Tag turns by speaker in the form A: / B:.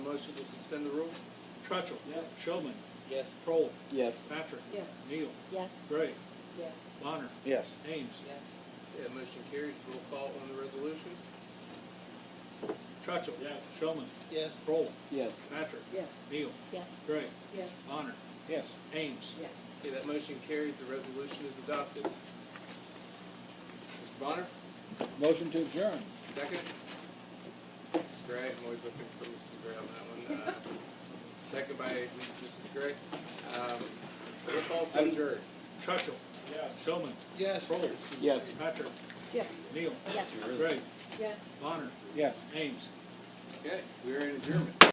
A: motion to suspend the rules?
B: Trutchell.
C: Yes.
B: Showman.
A: Yes.
B: Prole.
C: Yes.
B: Patrick.
D: Yes.
B: Neal.
D: Yes.
B: Gray.
D: Yes.
B: Bonner.
C: Yes.
B: Ames.
D: Yes.
A: Yeah, motion carries. Roll call on the resolutions?
B: Trutchell.
C: Yes.
B: Showman.
A: Yes.
B: Prole.
C: Yes.
B: Patrick.
D: Yes.
B: Neal.
D: Yes.
B: Gray.
D: Yes.
B: Bonner.
C: Yes.
B: Ames.
D: Yes.
A: Okay, that motion carries. The resolution is adopted. Mr. Bonner,
C: Motion to adjourn.
A: second? Mrs. Gray, I'm always looking for Mrs. Gray on that one. Uh, Second by Mrs. Gray. Um, Roll call to adjourn.
B: Trutchell.
C: Yes.
B: Showman.
A: Yes.
B: Prole.
C: Yes.
B: Patrick.
D: Yes.
B: Neal.
D: Yes.
B: Gray.
D: Yes.
B: Bonner.
C: Yes.
B: Ames.
A: Okay, we are in adjournment.